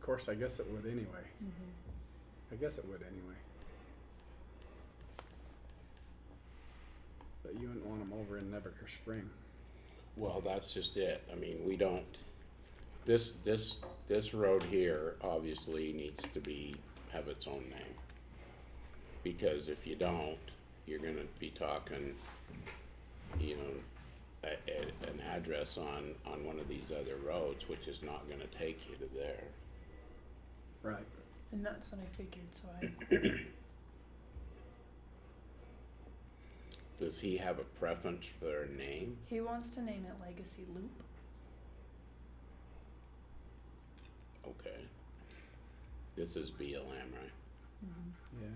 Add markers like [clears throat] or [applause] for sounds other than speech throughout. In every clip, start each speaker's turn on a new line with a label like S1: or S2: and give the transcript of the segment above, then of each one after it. S1: course, I guess it would anyway. I guess it would anyway. But you wouldn't want them over in Nebaker Spring.
S2: Well, that's just it. I mean, we don't, this, this, this road here obviously needs to be, have its own name. Because if you don't, you're gonna be talking, you know, a, a, an address on, on one of these other roads, which is not gonna take you to there.
S1: Right.
S3: And that's what I figured, so
S2: [clears throat]
S3: I,
S2: Does he have a preference for a name?
S3: he wants to name it Legacy Loop.
S2: Okay. This is BLM, right?
S1: Yeah.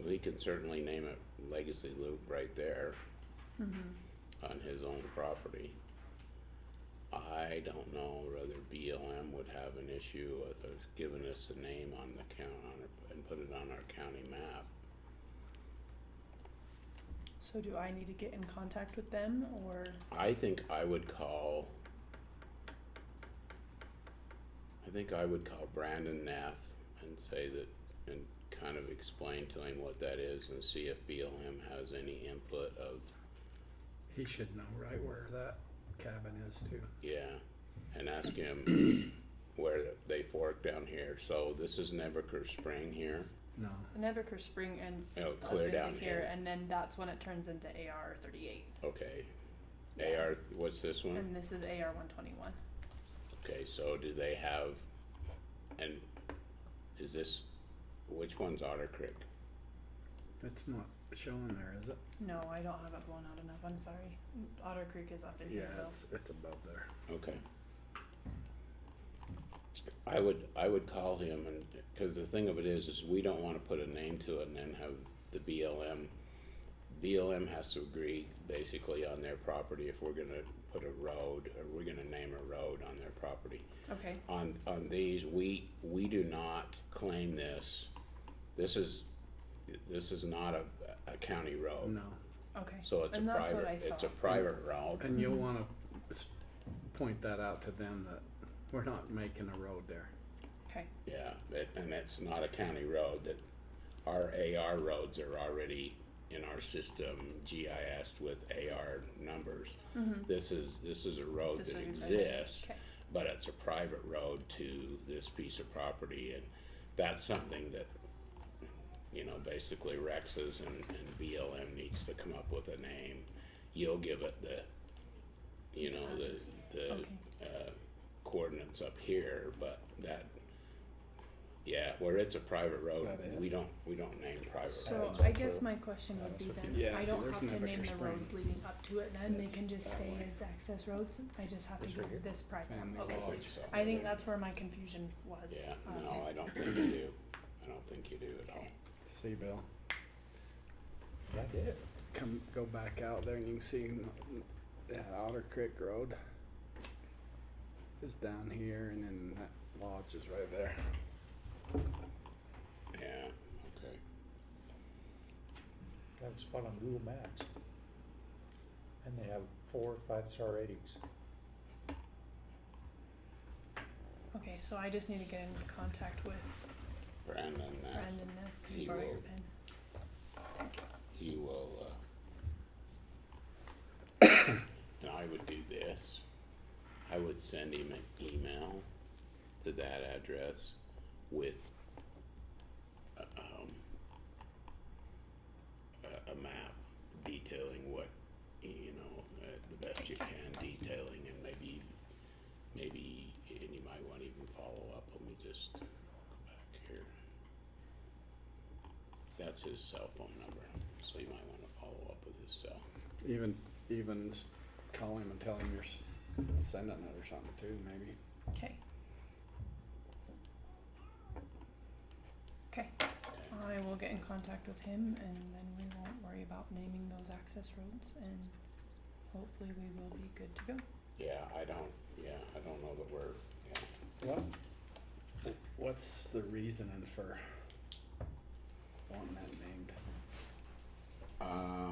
S2: Well, He can certainly name it Legacy Loop right there.
S3: Mm-hmm.
S2: on his own property. I don't know whether BLM would have an issue with us giving us a name on the count on, our- and put it on our county map.
S3: So do I need to get in contact with them or?
S2: I think I would call. I think I would call Brandon Neff and say that, and kind of explain to him what that is and see if BLM has any input of,
S1: He should know right where that cabin is too.
S2: yeah. And ask him where they fork down here, so this is Nebaker Spring here.
S1: No.
S3: Nebaker Spring ends
S2: Oh,
S3: up
S2: clear
S3: into
S2: down here.
S3: and then that's when it turns into AR thirty-eight,
S2: Okay. AR, what's this one?
S3: and this is AR one twenty-one.
S2: Okay, so do they have, and is this, which one's Otter Creek?
S1: It's not showing there, is it?
S3: No, I don't have it blown out enough, I'm sorry. Otter Creek is up in
S1: Yeah,
S3: here though.
S1: it's, it's above there.
S2: Okay. I would, I would call him and, cause the thing of it is, is we don't wanna put a name to it and then have the BLM. BLM has to agree basically on their property if we're gonna put a road, or we're gonna name a road on their property.
S3: Okay,
S2: on, on these, we, we do not claim this. This is, this is not a, a county road.
S1: Oh, No.
S3: okay.
S2: So it's a
S3: And that's what
S2: private,
S3: I
S2: it's a
S3: thought.
S2: private road.
S1: And you'll wanna s- point that out to them that we're not making a road there.
S3: Okay,
S2: Yeah, it- and it's not a county road that, our AR roads are already in our system GIS with AR numbers.
S3: Mm-hmm.
S2: This is, this is a road
S3: This
S2: that
S3: would be better.
S2: exists.
S3: okay,
S2: but it's a private road to this piece of property, and that's something that, you know, basically Rex's and, and BLM needs to come up with a name. You'll give it the, you know, the,
S3: Okay.
S2: the, uh, coordinates up here, but that, yeah, where it's a private road,
S1: that it?
S2: we don't, we don't name private roads.
S3: so
S2: up
S3: I
S2: here.
S3: guess my question would be then,
S1: uh, Yeah,
S3: I
S1: so
S3: don't
S1: there's
S3: have to
S1: Nebaker
S3: name the
S1: Spring.
S3: roads leading up to it then, they
S1: It's
S3: can just
S1: that
S3: stay
S1: way.
S3: as access roads, I just have to
S1: It's right here.
S3: get this private.
S1: Family
S3: Okay,
S1: law.
S2: I think so.
S3: I think that's where my confusion was.
S2: Yeah,
S3: Um,
S2: no, I don't think you do, I don't think you do at all.
S1: See, Bill,
S2: That's it.
S1: come, go back out there and you can see n- that Otter Creek Road is down here and then that lodge is right there.
S2: Yeah, okay.
S4: Got a spot on Google Maps. And they have four five-star ratings.
S3: Okay, so I just need to get in contact with
S2: Brandon, that's.
S3: Brandon now. Can
S2: he
S3: you borrow your
S2: will.
S3: pen?
S2: he will, uh, [coughs] and I would do this. I would send him an email to that address with, uh, um, a, a map detailing what, you know, uh, the best you can detailing and maybe, maybe, and you might wanna even follow up, let me just go back here. That's his cell phone number, so you might wanna follow up with his cell.
S1: Even, even s- call him and tell him you're s- sending it or something too, maybe.
S3: Okay. Okay, I will get in contact with him and then we won't worry about naming those access roads and hopefully we will be good to go.
S2: Yeah, I don't, yeah, I don't know that we're, yeah.
S1: What, wh- what's the reasoning for wanting that named?
S2: Um,